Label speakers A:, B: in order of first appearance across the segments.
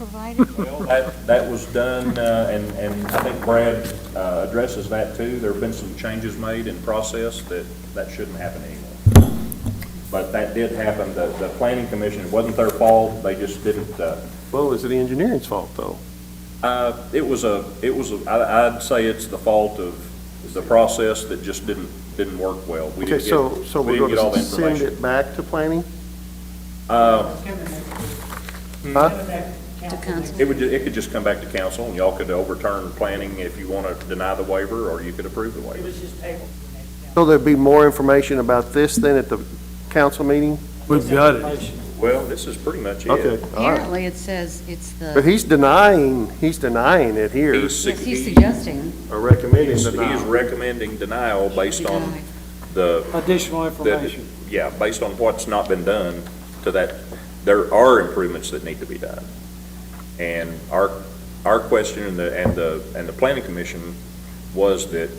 A: provided?
B: Well, that, that was done, uh, and, and I think Brad uh, addresses that too. There have been some changes made in process that, that shouldn't happen anymore. But that did happen. The, the planning commission, it wasn't their fault, they just didn't, uh,
C: Well, is it the engineering's fault, though?
B: uh, it was a, it was, a- I, I'd say it's the fault of the process that just didn't, didn't work well. We
C: Okay,
B: didn't
C: so,
B: get-
C: so
B: we
C: we're
B: didn't
C: going
B: get all the
C: to send
B: information. Uh,
C: it back to planning?
A: To council?
B: It would, ju- it could just come back to council, and y'all could overturn planning if you want to deny the waiver, or you could approve the waiver.
C: So there'd be more information about this then at the council meeting?
D: We've got it.
B: Well, this is pretty much it.
C: Okay, all right.
A: Apparently, it says it's
C: But
A: the,
C: he's denying, he's denying it here,
B: He's
A: yes, he's
B: suggesting
A: suggesting.
C: or recommending
B: He's
C: denial.
B: he's recommending denial based on
A: denied.
B: the,
D: Additional
B: the, yeah, based on what's not been done to that, there are improvements that need to be done. And our, our question and the, and the, and the planning commission was that,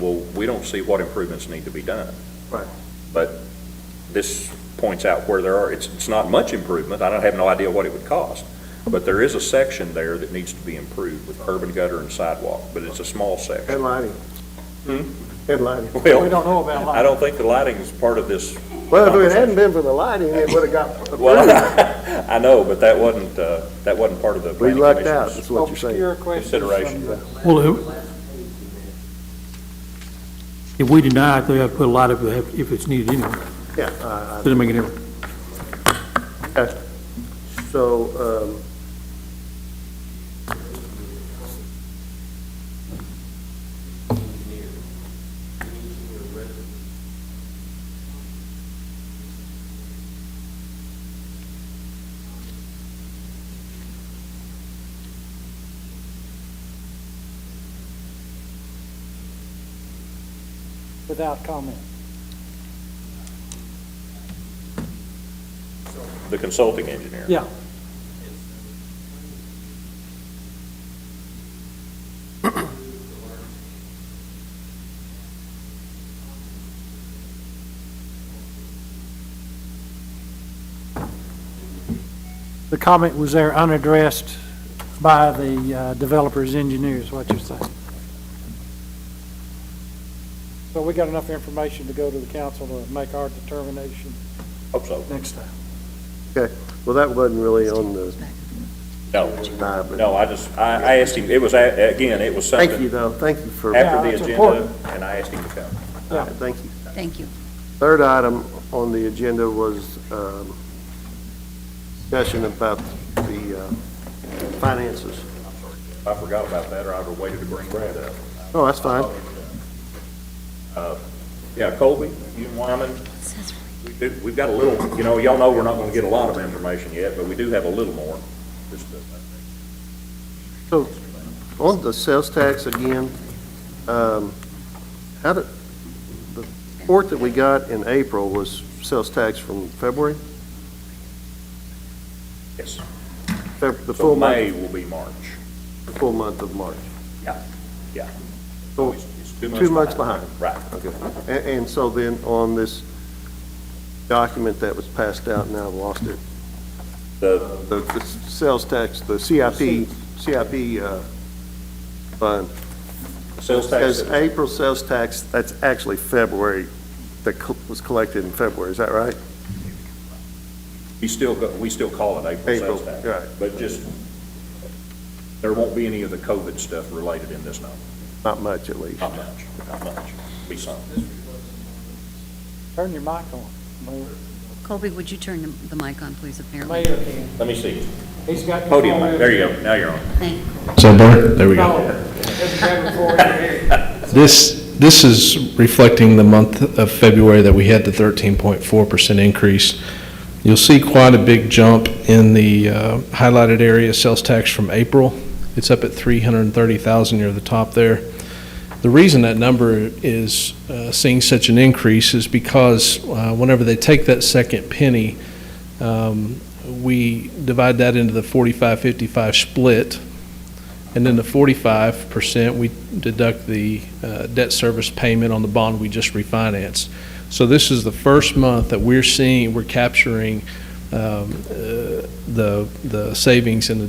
B: well, we don't see what improvements need to be done.
C: Right.
B: But this points out where there are, it's, it's not much improvement, I don't have no idea what it would cost. But there is a section there that needs to be improved with curb and gutter and sidewalk, but it's a small section.
C: And lighting.
B: Hmm?
C: And lighting.
B: Well,
D: know about
B: I don't think the lighting is part of this.
C: Well, if it hadn't been for the lighting, it would've got approved.
B: Well, I know, but that wasn't, uh, that wasn't part of the
C: We
B: planning
C: lucked out,
B: commission's
C: is what you're saying.
B: consideration.
D: Well, if- if we deny it, they have to put a lot of, if it's needed anyway,
C: Yeah, I-
D: doesn't make any difference.
C: I- okay. So, um,
E: without comment.
B: The consulting engineer.
E: Yeah. The comment was there unaddressed by the uh, developer's engineers, what you're saying. So we got enough information to go to the council to make our determination
B: Hope so.
E: next time.
C: okay, well, that wasn't really on the,
B: No,
C: nah, but,
B: no, I just, I, I asked him, it was, a- again, it was
C: thank you
B: something
C: though, thank you for, all
B: after
E: Yeah,
B: the
E: it's
B: agenda,
E: important.
B: and I asked him to come.
C: right, thank you.
A: Thank you.
C: Third item on the agenda was um, discussion about the uh, finances.
B: I forgot about that, or I'd have waited to bring Brad up.
C: Oh, that's fine.
B: Yeah, Colby, you and Wyman, we do, we've got a little, you know, y'all know we're not gonna get a lot of information yet, but we do have a little more. uh, Just a-
C: So on the sales tax again, um, how did, the report that we got in April was sales tax from February?
B: Yes.
C: Feb- The
B: So
C: full
B: May
C: month,
B: will be March.
C: the full month of March.
B: Yeah, yeah.
C: So
B: It's- it's
C: two months behind.
B: Right.
C: Okay. And, and so then on this document that was passed out, now I've lost it,
B: The,
C: the, the sales tax, the CIP, CIP, uh, fund.
B: the sales tax,
C: As April sales tax, that's actually February, that co- was collected in February, is that right?
B: we still, go- we still call it April sales
C: April,
B: tax.
C: right.
B: But just, there won't be any of the COVID stuff related in this number,
C: Not much, at least.
B: not much, not much, be some.
E: Turn your mic on. Mayor.
A: Colby, would you turn the- the mic on, please, apparently?
E: Mayor can.
B: Let me see,
E: He's got.
B: podium, mic. there you go, now you're on.
A: Thank you.
F: So there, there we go.
E: No, it's grabbing for it.
F: This, this is reflecting the month of February that we had the 13.4% increase. You'll see quite a big jump in the uh, highlighted area, sales tax from April. It's up at 330,000 near the top there. The reason that number is uh, seeing such an increase is because uh, whenever they take that second penny, um, we divide that into the 45-55 split, and then the 45%, we deduct the uh, debt service payment on the bond we just refinanced. So this is the first month that we're seeing, we're capturing um, uh, the the savings in the